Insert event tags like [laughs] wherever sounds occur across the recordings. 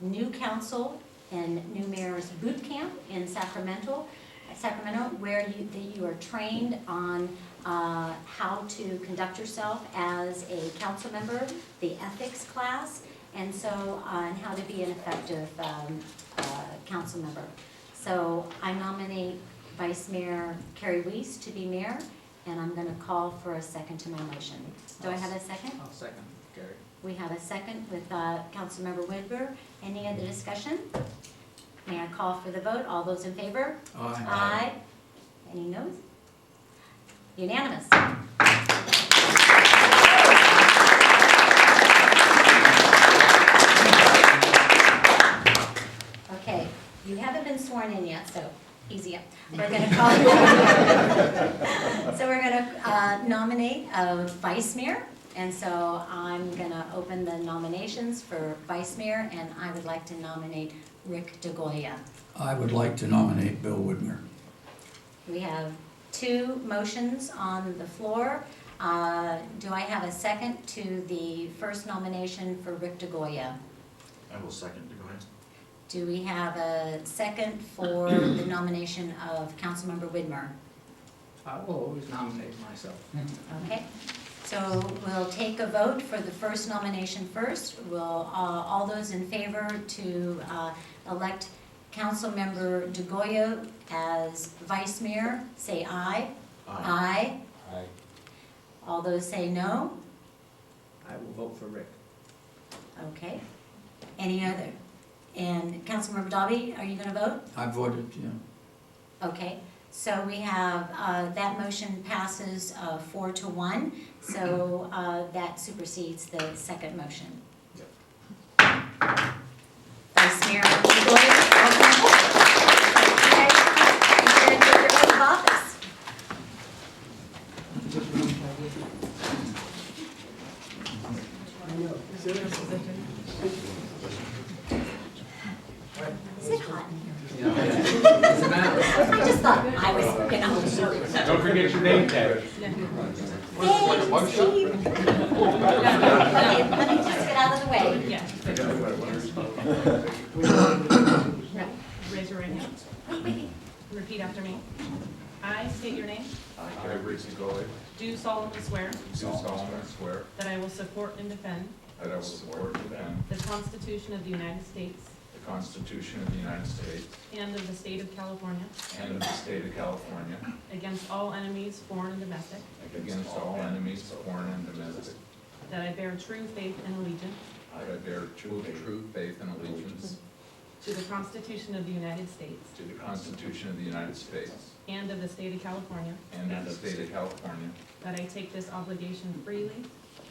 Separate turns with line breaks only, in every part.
new council and new mayor's boot camp in Sacramento, Sacramento, where you, that you are trained on uh, how to conduct yourself as a council member, the ethics class, and so on how to be an effective um, uh, council member. So I nominate Vice Mayor Carrie Weiss to be mayor, and I'm going to call for a second to my motion. Do I have a second?
I'll second Gary.
We have a second with uh, Councilmember Whitmer. Any other discussion? May I call for the vote? All those in favor? Aye. Any noes? Unanimous. Okay, you haven't been sworn in yet, so easy up. We're gonna call. [laughs] So we're gonna uh, nominate a vice mayor, and so I'm gonna open the nominations for vice mayor, and I would like to nominate Rick DeGoya.
I would like to nominate Bill Woodmer.
We have two motions on the floor. Uh, Do I have a second to the first nomination for Rick DeGoya?
I will second, go ahead.
Do we have a second for the nomination of Councilmember Widmer?
I will always nominate myself.
Okay, so we'll take a vote for the first nomination first. Will, uh, all those in favor to uh, elect Councilmember DeGoya as vice mayor, say aye. Aye.
Aye.
All those say no.
I will vote for Rick.
Okay. Any other? And Councilmember Dobby, are you gonna vote?
I voted, yeah.
Okay, so we have, uh, that motion passes uh, four to one, so uh, that supersedes the second motion.
Yep.
Vice Mayor Godoy, welcome. Okay, and your oath of office. Is it hot in here? I just thought I was, you know.
Don't forget your name tag.
Thanks, Steve. [laughs] Okay, let me just get out of the way.
Yeah, raise your right hand. Repeat after me. I state your name,
I, Rick DeGoey,
do solemnly swear
do solemnly swear
that I will support and defend
that I will support and defend
the Constitution of the United States
the Constitution of the United States
and of the state of California
and of the state of California
against all enemies, foreign and domestic,
against all enemies, foreign and domestic.
that I bear true faith and allegiance
I bear true true faith and allegiance
to the Constitution of the United States
to the Constitution of the United States
and of the state of California,
and of the state of California,
that I take this obligation freely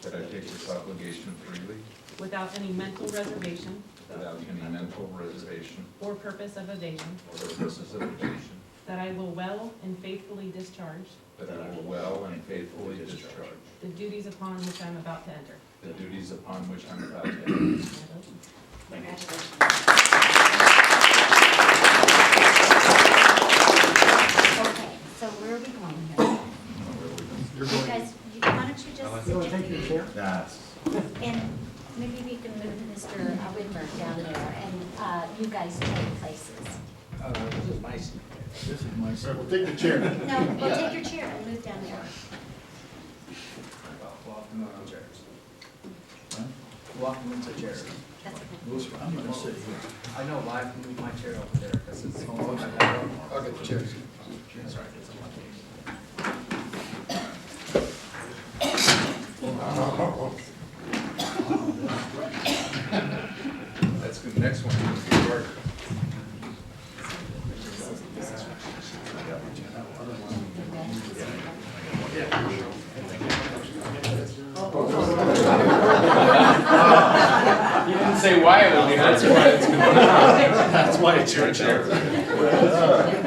that I take this obligation freely
without any mental reservation
without any mental reservation
or purpose of evasion,
or purposes of evasion,
that I will well and faithfully discharge
that I will well and faithfully discharge
the duties upon which I'm about to enter.
the duties upon which I'm about to enter.
Okay, so where are we going here?
You're Oh,
You guys, you- why don't you just
You
sit down?
That's.
And maybe we can move Mr. Whitmer down there, and uh, you guys take places.
Uh, this is my seat.
This is my.
We'll take the chair.
No, well, take your chair and move down there.
Walk them into chairs. Walk them into chairs.
That's okay.
I'm gonna sit here.
I know, why I moved my chair over there because it's. I'll get the chairs. That's right, it's on my case.
That's good. Next one is the order.
You didn't say why it would be.
That's why it's good. That's why it's your chair.